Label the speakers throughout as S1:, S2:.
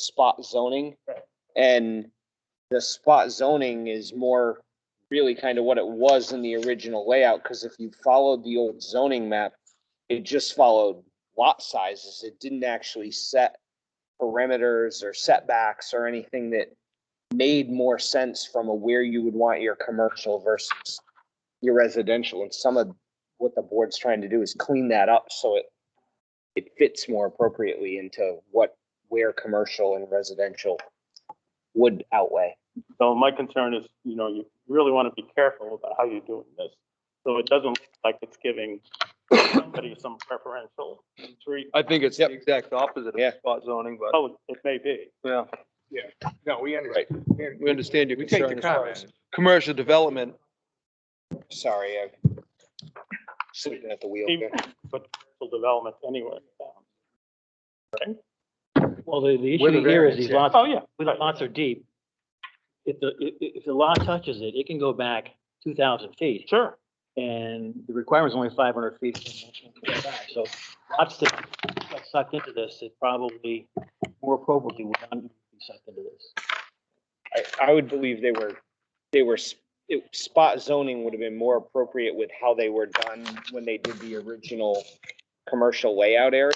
S1: spot zoning.
S2: Right.
S1: And the spot zoning is more really kind of what it was in the original layout, because if you followed the old zoning map, it just followed lot sizes. It didn't actually set parameters or setbacks or anything that made more sense from a where you would want your commercial versus your residential. And some of what the board's trying to do is clean that up so it it fits more appropriately into what where commercial and residential would outweigh.
S2: So my concern is, you know, you really want to be careful about how you're doing this. So it doesn't look like it's giving somebody some preferential treatment.
S3: I think it's the exact opposite
S1: Yeah.
S3: of spot zoning, but,
S2: Oh, it may be.
S3: yeah,
S4: No, we
S1: Right.
S4: understand.
S3: we understand your
S4: We take the
S3: concern as far
S4: comments.
S3: as commercial development.
S1: Sorry, I sitting at the wheel.
S2: Even- But for development anywhere.
S5: Well, the, the
S4: With a
S5: issue here is
S4: variance,
S5: these
S4: yeah.
S5: lots,
S2: Oh, yeah.
S5: when the lots are deep, if the, if, if the lot touches it, it can go back two thousand feet.
S2: Sure.
S5: And the requirement's only five hundred feet. from the maximum setback. So lots that got sucked into this, it probably more appropriately would not be sucked into this.
S1: I, I would believe they were, they were, s- it, spot zoning would have been more appropriate with how they were done when they did the original commercial layout area.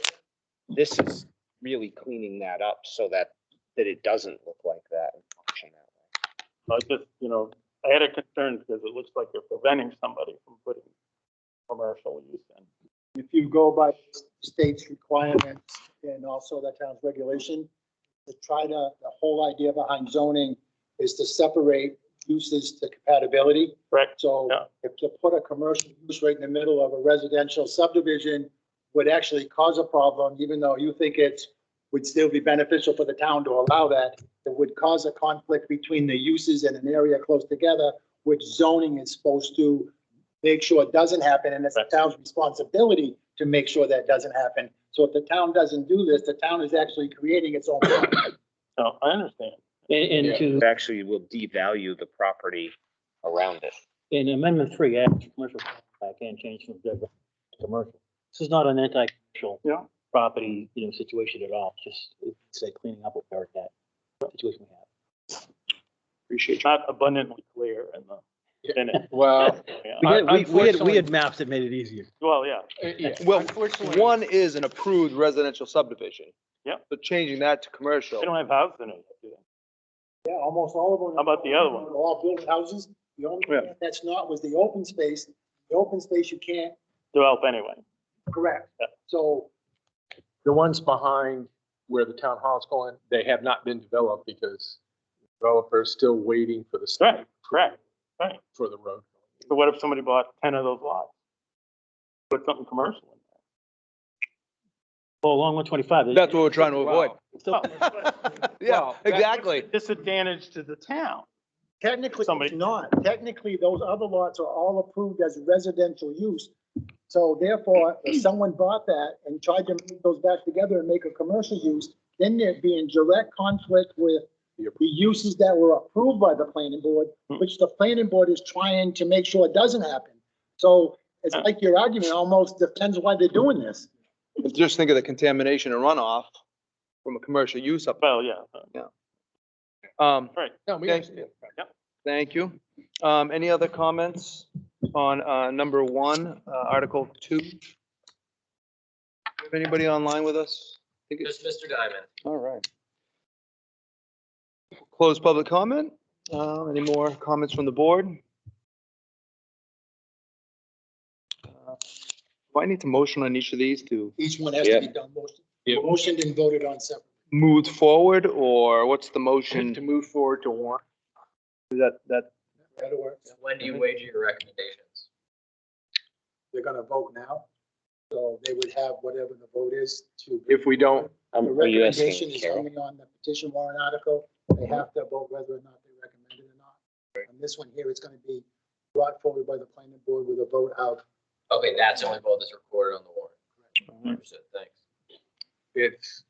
S1: This is really cleaning that up so that, that it doesn't look like that. and function that way.
S2: I just, you know, I had a concern because it looks like you're preventing somebody from putting commercial use in.
S6: if you go by state's requirements and also the town's regulation, to try to, the whole idea behind zoning is to separate uses to compatibility.
S2: Correct.
S6: So
S2: Yeah.
S6: if to put a commercial use right in the middle of a residential subdivision would actually cause a problem, even though you think it's, would still be beneficial for the town to allow that, it would cause a conflict between the uses in an area close together, which zoning is supposed to make sure it doesn't happen, and it's the
S2: Right.
S6: town's responsibility to make sure that doesn't happen. So if the town doesn't do this, the town is actually creating its own problem.
S2: No, I understand.
S5: And, and to,
S1: It Actually will devalue the property around it.
S5: in amendment three, add commercial, I can change from residential to commercial. This is not an anti-commercial
S2: Yeah.
S5: property, you know, situation at all, just, it's a cleaning up of that situation we have.
S2: Appreciate. Not abundantly clear in the minute.
S4: Well,
S2: Yeah.
S5: We had, we- we had, we
S4: Unfortunately-
S5: had maps that made it easier.
S2: Well, yeah.
S4: Uh, yeah.
S3: Well,
S4: Unfortunately-
S3: one is an approved residential subdivision.
S2: Yep.
S3: So changing that to commercial.
S2: They don't have houses in it. do they?
S6: Yeah, almost all of them.
S2: How about the other one?
S6: They're All built houses. The only thing
S2: Yeah.
S6: that's not was the open space. The open space you can't
S2: Develop anyway.
S6: correct.
S2: Yeah.
S6: So
S4: The ones behind where the town hall's going, they have not been developed because developers still waiting for the state
S2: Correct, correct.
S4: for the road.
S2: So what if somebody bought ten of those lots? Put something commercial in there.
S5: Well, along one twenty-five. they-
S3: That's what we're trying to avoid.
S5: Still-
S3: Yeah, exactly.
S2: Disadvantage to the town.
S6: Technically,
S2: Somebody-
S6: it's not. Technically, those other lots are all approved as residential use. So therefore, if someone bought that and tried to move those back together and make a commercial use, then they'd be in direct conflict with the uses that were approved by the planning board,
S4: Hmm.
S6: which the planning board is trying to make sure it doesn't happen. So it's like your argument almost defends why they're doing this.
S3: Just think of the contamination and runoff from a commercial use up.
S2: Well, yeah. uh,
S3: Um,
S4: No, we
S3: Okay.
S4: understand.
S3: Thank you. Um, any other comments on, uh, number one, uh, Article two? Have Anybody online with us? Just Mr. Diamond. All right. Close public comment. Uh, any more comments from the board? Uh, Do I need to motion on each of these to
S6: Each one has to be done motion,
S4: Yeah.
S6: motioned and voted on separately.
S3: move forward or what's the
S4: To
S3: motion?
S4: move forward to one.
S3: Is That, that,
S6: That'll work.
S7: When do you wager your recommendations?
S6: They're gonna vote now. So they would have whatever the vote is to.
S4: If we don't,
S1: Um,
S6: The
S1: are you asking
S6: recommendation is
S1: Carol?
S6: only on the petition warrant article. They have to vote whether or not they recommend it or not. On this one here, it's gonna be brought forward by the planning board with a vote out.
S7: Okay, that's the only vote that's recorded on the warrant. Understood, thanks.
S4: it's,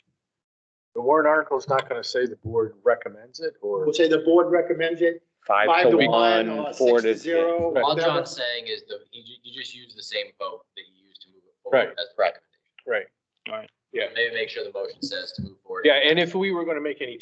S4: the warrant article's not going to say the board recommends it or.
S6: We'll say the board recommends it, five to one, or
S1: four
S6: six to zero.
S4: Right.
S7: All
S6: whatever.
S7: John's saying is the, you, ju- you just use the same vote that you used to move it forward.
S4: Right.
S7: That's the recommendation.
S4: Right.
S3: Alright.
S7: Yeah.
S4: Maybe make sure the motion says to move forward.
S7: Yeah, and if we were gonna make any